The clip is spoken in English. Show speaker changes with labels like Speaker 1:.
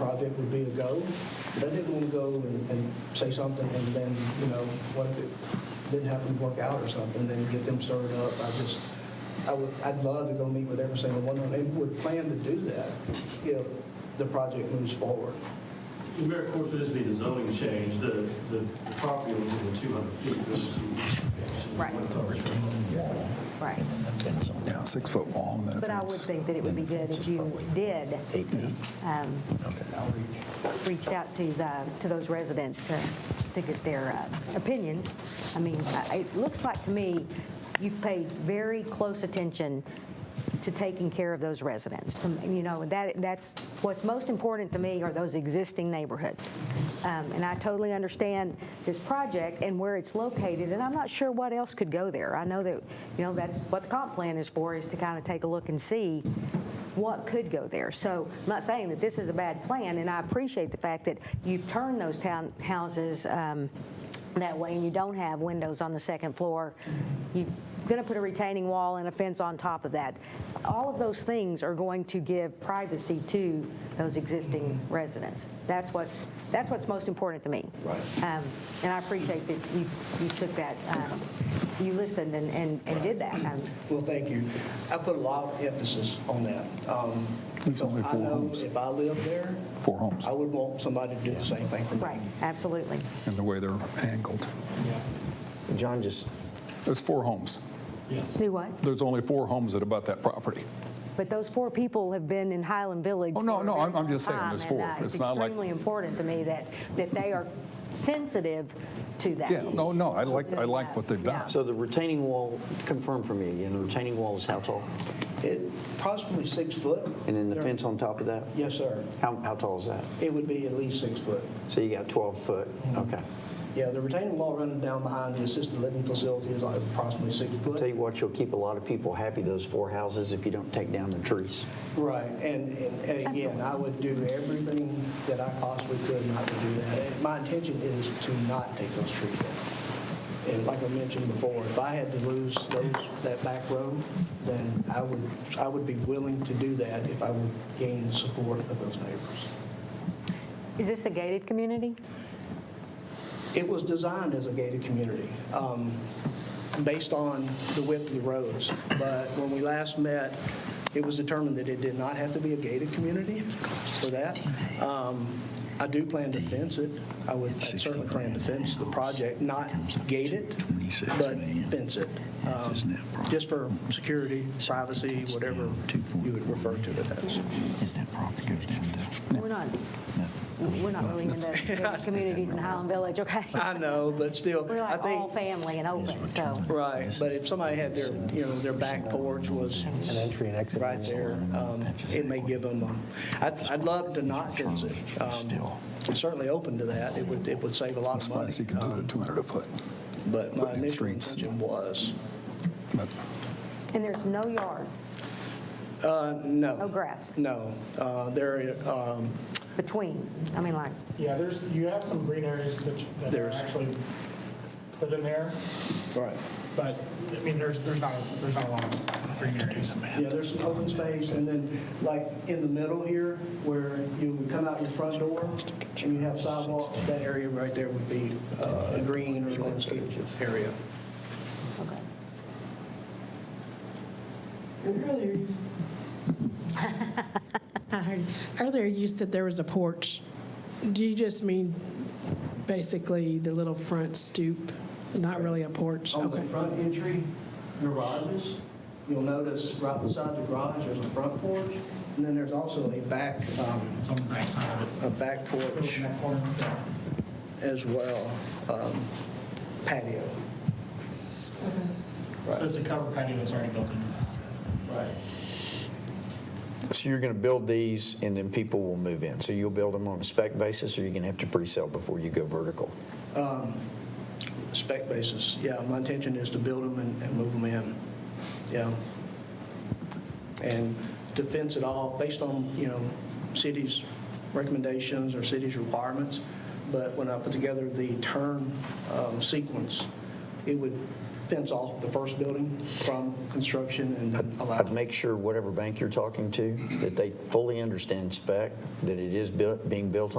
Speaker 1: project would be a go. They didn't want to go and, and say something and then, you know, what if it didn't happen to work out or something, then get them started up. I just, I would, I'd love to go meet with every single one of them and would plan to do that if the project moves forward.
Speaker 2: Mayor, of course, this being a zoning change, the, the the property was within 200 feet. of this expansion.
Speaker 3: Right. Right,
Speaker 4: Yeah, six-foot wall and then a
Speaker 3: but I would
Speaker 4: fence.
Speaker 3: think that it would be good if you did
Speaker 4: Eight feet.
Speaker 3: um, reach out to the, to those residents to, to get their uh, opinion. I mean, I- it looks like to me you've paid very close attention to taking care of those residents. To- You know, that, that's, what's most important to me are those existing neighborhoods. Um, And I totally understand this project and where it's located, and I'm not sure what else could go there. I know that, you know, that's what the comp plan is for, is to kind of take a look and see what could go there. So I'm not saying that this is a bad plan, and I appreciate the fact that you've turned those town houses um, that way, and you don't have windows on the second floor. You're going to put a retaining wall and a fence on top of that. All of those things are going to give privacy to those existing residents. That's what's, that's what's most important to me. Right. And I appreciate that you, you took that, um, you listened and, and and did that. Um,
Speaker 1: Well, thank you. I put a lot of emphasis on that. Um,
Speaker 4: There's only
Speaker 1: I
Speaker 4: four
Speaker 1: know
Speaker 4: homes.
Speaker 1: if I lived there,
Speaker 4: Four homes,
Speaker 1: I would want somebody to do the same thing for me.
Speaker 3: Right, absolutely.
Speaker 4: and the way they're angled.
Speaker 5: John just,
Speaker 4: There's four homes.
Speaker 3: Do what?
Speaker 4: There's only four homes that abut that property.
Speaker 3: But those four people have been in Highland Village.
Speaker 4: Oh, no,
Speaker 3: for a
Speaker 4: no,
Speaker 3: very
Speaker 4: I'm- I'm just
Speaker 3: long
Speaker 4: saying there's
Speaker 3: time,
Speaker 4: four.
Speaker 3: and, uh, It's
Speaker 4: It's not like-
Speaker 3: extremely important to me that, that they are sensitive to that.
Speaker 4: Yeah, no, no, I like, I like what they've done.
Speaker 5: so the retaining wall, confirm for me again, the retaining wall is how tall?
Speaker 1: It, possibly six foot.
Speaker 5: And then the
Speaker 1: There-
Speaker 5: fence on top of that?
Speaker 1: Yes, sir.
Speaker 5: How, how tall is that?
Speaker 1: It would be at least six foot.
Speaker 5: So you got 12 foot, okay.
Speaker 1: Yeah, the retaining wall running down behind the assisted living facility is like approximately six
Speaker 5: Tell
Speaker 1: foot.
Speaker 5: you what, you'll keep a lot of people happy, those four houses, if you don't take down the trees.
Speaker 1: Right, and, and again, I would do everything that I possibly could not to do that. And My intention is to not take those trees down. And like I mentioned before, if I had to lose those, that back row, then I would, I would be willing to do that if I would gain the support of those neighbors.
Speaker 3: Is this a gated community?
Speaker 1: It was designed as a gated community, um, based on the width of the roads. But when we last met, it was determined that it did not have to be a gated community for that. Um, I do plan to fence it. I would I'd certainly plan to fence the project, not gate it, but fence it, um, just for security, privacy, whatever you would refer to it as.
Speaker 6: Is that property goes down to
Speaker 3: We're not, we're not really into gated communities in Highland Village, okay?
Speaker 1: I know, but still,
Speaker 3: We're
Speaker 1: I
Speaker 3: like all
Speaker 1: think,
Speaker 3: family and open, so.
Speaker 1: right, but if somebody had their, you know, their back porch was
Speaker 5: An entry and exit.
Speaker 1: right there, um, it may give them, a- I'd, I'd love to not fence it. Um, I'm Certainly open to that, it would, it would save a lot
Speaker 4: That's
Speaker 1: of
Speaker 4: nice, you
Speaker 1: money.
Speaker 4: can do it
Speaker 1: Um,
Speaker 4: at 200 a foot.
Speaker 1: But my
Speaker 4: putting in
Speaker 1: initial
Speaker 4: streets.
Speaker 1: intention was,
Speaker 4: But
Speaker 3: And there's no yard
Speaker 1: uh, no.
Speaker 3: No grass.
Speaker 1: No, Uh, there, um,
Speaker 3: between, I mean, like,
Speaker 7: Yeah, there's, you have some green areas that that are
Speaker 1: There's-
Speaker 7: actually put in there,
Speaker 1: right,
Speaker 7: but, I mean, there's, there's not, there's not a lot of green areas.
Speaker 1: yeah, there's some open space, and then, like, in the middle here, where you would come out your front door, and you have sidewalk, that area right there would be uh, a green or landscape area.
Speaker 3: okay.
Speaker 8: Earlier, you- Hi. Earlier you said there was a porch. Do you just mean basically the little front stoop, not really a porch?
Speaker 1: On Oh, the
Speaker 8: Okay.
Speaker 1: front entry garages, you'll notice right beside the garage, there's a front porch, and then there's also a back, um,
Speaker 7: It's on the backside of
Speaker 1: a back
Speaker 7: it.
Speaker 1: porch
Speaker 7: In that corner.
Speaker 1: as well, um, patio.
Speaker 7: So it's a covered patio that's already built in.
Speaker 1: Right.
Speaker 5: So you're going to build these, and then people will move in. So you'll build them on a spec basis, or you're going to have to pre-sell before you go vertical?
Speaker 1: Spec basis, yeah, my intention is to build them and and move them in, yeah. And to fence it all based on, you know, city's recommendations or city's requirements. But when I put together the turn um, sequence, it would fence off the first building from construction and then allow.
Speaker 6: I'd make sure whatever bank you're talking to, that they fully understand spec, that it is built, being built